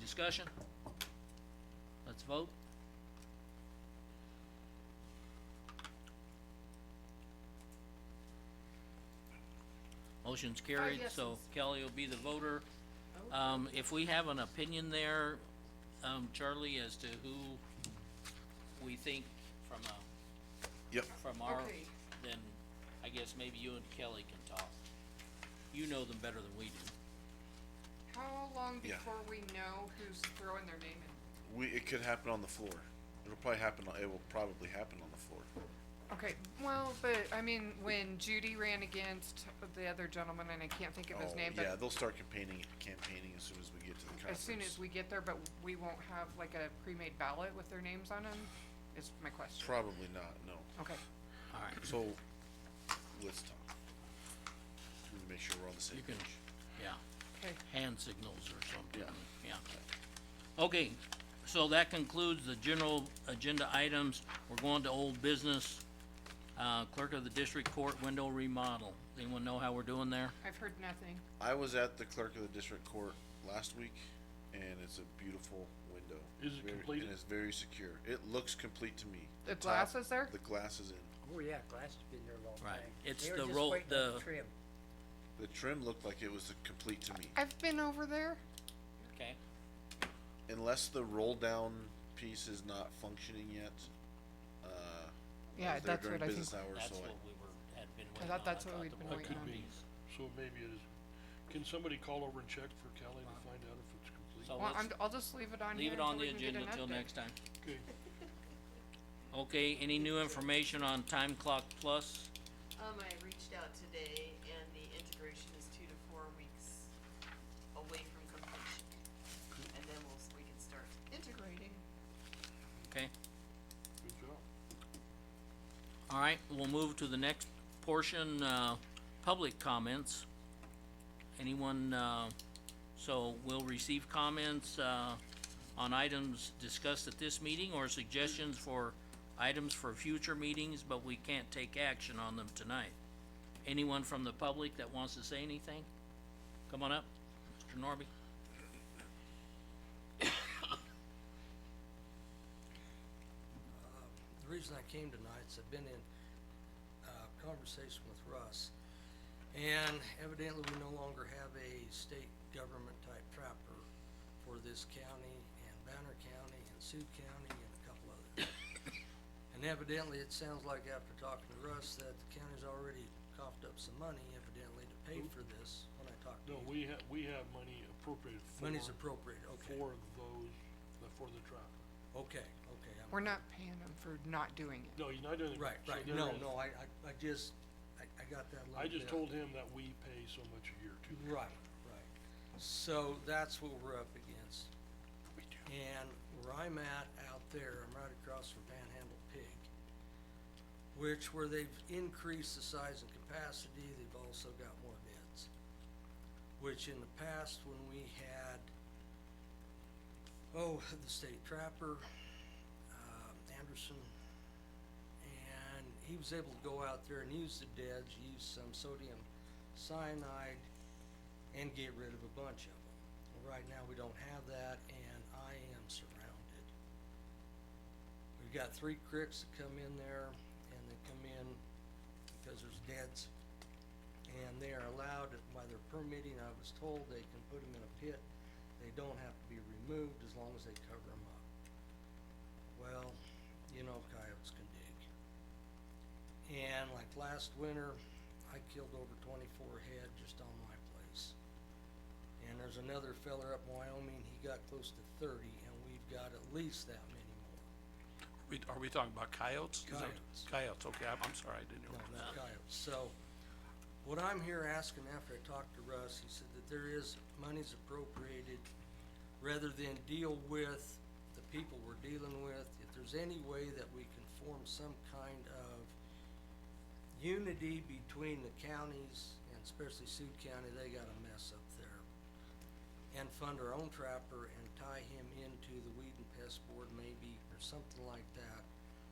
discussion? Let's vote. Motion's carried, so yeses. Kelly will be the voter. Um, if we have an opinion there, um, Charlie, as to who we think from a, Yep, from our, Okay. then I guess maybe you and Kelly can talk. You know them better than we do. How long Yeah. before we know who's throwing their name in? we, it could happen on the floor. It'll probably happen, on- it will probably happen on the floor. Okay, well, but, I mean, when Judy ran against the other gentleman, and I can't think of his Oh, name, Yeah, but they'll start campaigning, campaigning as soon as we get to the as conference. soon as we get there, but we won't have like a pre-made ballot with their names on them, is my question. Probably not, no. Okay, All right, So, let's talk. Let me Make sure we're on the same you can, page. yeah, okay, hand signals or something, Yeah. yeah. Okay, so that concludes the general agenda items. We're going to old business, uh, clerk of the district court window remodel. Anyone know how we're doing there? I've heard nothing. I was at the clerk of the district court last week, and it's a beautiful window. Is it Very- completed? And it's very secure. It looks complete to me. The top- glass is there? The glass is in. Oh, yeah, glass has been there a long Right. time. It's They were the just roll- waiting on the- Trim. The trim looked like it was complete to me. I've been over there. Okay, Unless the roll down piece is not functioning yet, Yeah, uh. I was there that's during what I business think- hours, that's so I- what we were, had been I waiting on. thought that's what thought we'd the been one That waiting could on. be, so maybe it is, can somebody call over and check for Kelly to find out if it's complete? So Well, let's I'm, I'll just leave it on here leave it on until the we can get agenda an until update. next time. Okay, Okay, any new information on time clock plus? Um, I reached out today and the integration is two to four weeks away from completion. And then we'll, we can start integrating. Okay, good job. all right, we'll move to the next portion, uh, public comments. Anyone, uh, so we'll receive comments, uh, on items discussed at this meeting or suggestions for items for future meetings, but we can't take action on them tonight. Anyone from the public that wants to say anything? Come on up, Mr. Norby. The reason I came tonight is I've been in, uh, conversation with Russ. And evidently, we no longer have a state government type trapper for this county and Banner County and Sioux County and a couple others. And evidently, it sounds like after talking to Russ that the county's already coughed up some money evidently to pay for this when I talked to No, you. we have, we have money appropriated for. Money's appropriate, okay, For those, uh, for the trapper. okay, okay, I'm. We're not paying them for not doing it. No, you're not doing. Right, so right, there no, is- no, I, I, I just, I, I got that little I bit. just told him that we pay so much a year too. Right, right, so that's what we're up against. And where I'm at out there, I'm right across from Panhandle Pig, which where they've increased the size and capacity, they've also got more beds. Which in the past, when we had, oh, the state trapper, um, Anderson, and he was able to go out there and use the deads, use some sodium cyanide, and get rid of a bunch of them. Right now, we don't have that, and I am surrounded. We've got three cricks that come in there, and they come in because there's deads, and they are allowed by their permitting, I was told, they can put them in a pit. They don't have to be removed as long as they cover them up. Well, you know coyotes can dig. And like last winter, I killed over twenty-four head just on my place. And there's another feller up in Wyoming, he got close to thirty, and we've got at least that many more. We, are we talking about coyotes? Is that- Coyotes. Coyotes, okay, I'm, I'm sorry, I didn't hear. No, what you not coyotes. So, what I'm here asking after I talked to Russ, he said that there is, money's appropriated, rather than deal with the people we're dealing with, if there's any way that we can form some kind of unity between the counties, and especially Sioux County, they got a mess up there. And fund our own trapper and tie him into the weed and pest board maybe, or something like that.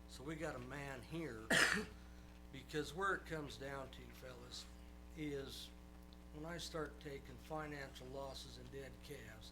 So we got a man here because where it comes down to, fellas, is when I start taking financial losses and dead calves,